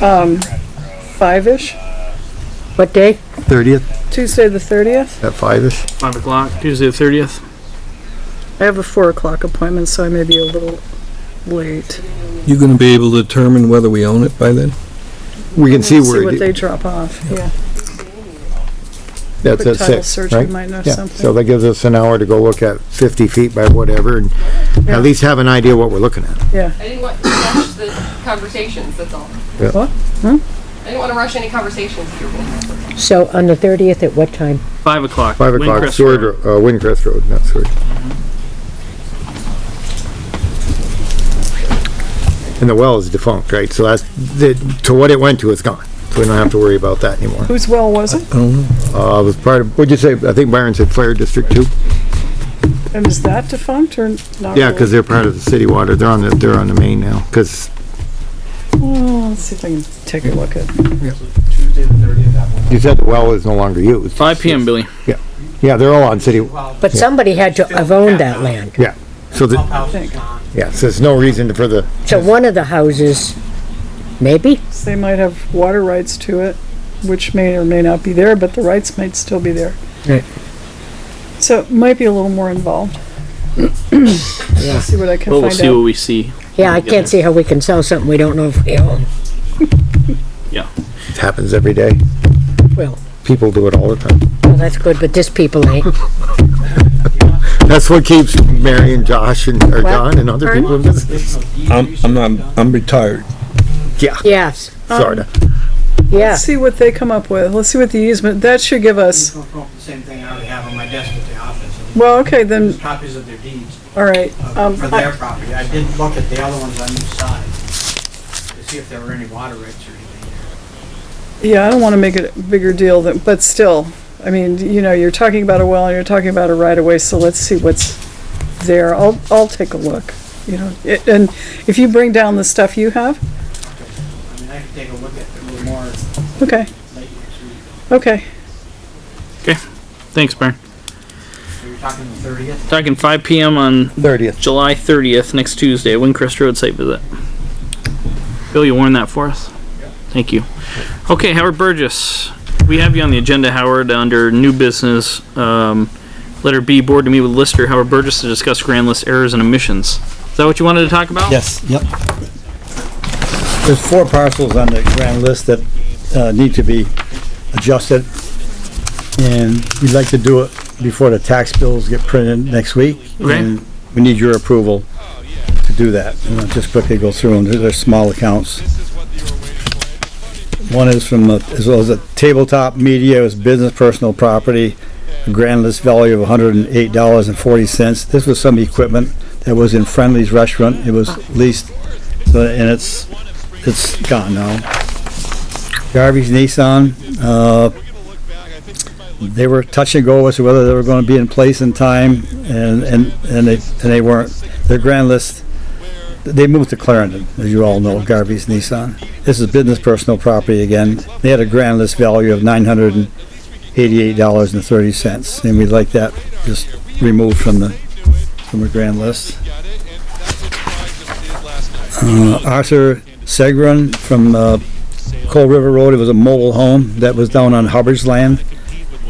um, five-ish, What day? 30th Tuesday the thirtieth. at 5ish. Five o'clock, Tuesday the thirtieth. I have a four o'clock appointment, so I may be a little late. You gonna be able to determine whether we own it by then? We can see See where, what it they i- drop off, yeah. that's Quick at title 6, search, we right? might know Yeah, so something. that gives us an hour to go look at 50 feet by whatever and Yeah. at least have an idea what we're looking at. Yeah, I didn't want to rush the conversations, that's all. Yeah. What? Hmm? I didn't want to rush any conversations. if you were gonna have them. So on the 30th at what time? Five o'clock. 5 o'clock, Windcrest Sword, Road. Ro- uh, Windcrest Road, not Sword. And the well is defunct, right? So that's, the- to what it went to, it's gone. So we don't have to worry about that anymore. whose well was it? Uh, it was part of, what'd you say? I think Byron said Fire District 2? And is that defunct or not? Yeah, really? because they're part of the city water. They're on the, they're on the main now, because Oh, let's see if I can take a look at, Tuesday the thirtieth at one. you said the well is no longer used. Five PM, Billy. Yeah, they're all on city, But somebody had to have owned that land. yeah. So Pump the, house is gone. yeah, so there's no reason for the, So one of the houses, maybe? they might have water rights to it, which may or may not be there, but the rights might still be there. Right. So it might be a little more involved. Yeah. See what I can Well, we'll find see what out. we see. Yeah, I can't see how we can sell something we don't know if we own. it happens every day. Well, People do it all the time. well, that's good, but this people ain't. That's what keeps Mary and Josh and, or John and other people in business. I'm, I'm not, I'm retired. Yeah, Yes, sorta. yeah. Let's see what they come up with. Let's see what the easement, that should give us, Go for the Same thing I already have on my desk at the office. well, okay, then, There's copies of their deeds all right. uh, Um, for I- their property. I did look at the other ones on each side to see if there were any water rights or anything. Yeah, I don't want to make it a bigger deal than, but still, I mean, you know, you're talking about a well and you're talking about a right of way, so let's see what's there. I'll, I'll take a look, you know, It- and if you bring down the stuff you have, I mean, I could take a look at them more okay, late next week. okay. Thanks, Byron. So you're talking the thirtieth? Talking five PM on Thirtieth. July thirtieth, next Tuesday, Windcrest Road site visit. Bill, you warned that for us? Thank you. Okay, Howard Burgess, we have you on the agenda, Howard, under new business, um, letter B, board to meet with Lister, Howard Burgess to discuss grand list errors and omissions. Is that what you wanted to talk about? Yes, yep. There's four parcels on the grand list that uh, need to be adjusted, and we'd like to do it before the tax bills get printed next week. Okay. and We need your approval to do that. And I'll just quickly go through them, they're they're small accounts. One is from, uh, as well as a tabletop media, is business personal property, a grand list value of $108.40. This was some equipment that was in Friendly's restaurant, it was leased, so- and it's, it's gone now. Garvey's Nissan, uh, they were touch and go as to whether they were gonna be in place in time, and, and, and they, and they weren't. Their grand list, they moved to Clarendon, as you all know, Garvey's Nissan. This is business personal property again. They had a grand list value of nine hundred and eighty-eight dollars and thirty cents, and we'd like that just removed from the, from the grand list. Uh, Arthur Segrin from, uh, Cold River Road, it was a mobile home that was down on Hubbard's land.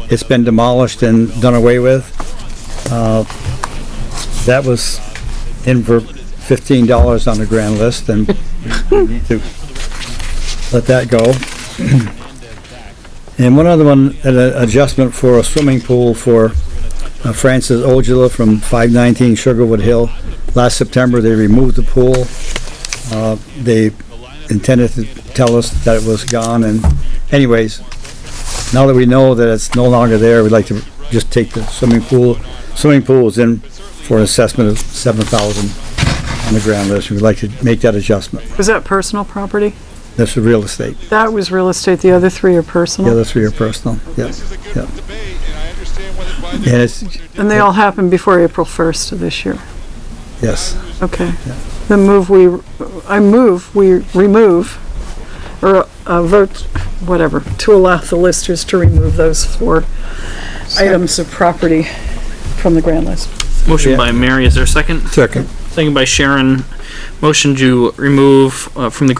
It's been demolished and done away with. Uh, That was in for fifteen dollars on the grand list and we need to let that go. And one other one, an uh, adjustment for a swimming pool for uh, Francis Ojala from five nineteen Sugarwood Hill. Last September, they removed the pool. Uh, They intended to tell us that it was gone and anyways, now that we know that it's no longer there, we'd like to just take the swimming pool, swimming pool is in for an assessment of seven thousand on the ground list, we'd like to make that adjustment. Was that personal property? That's the real estate, That was real estate, the other three are the personal, other three are personal, yeah. This is a good Yeah. debate, and I understand whether by the And it's, and they all happened before April first of this year. yes, Okay. The move we, I move, we remove, or uh, vote, whatever, to allow the listers to remove those four items of property from the grand list. Motion Yeah. by Mary, is there a second? second. Second by Sharon, motion to remove, uh, from the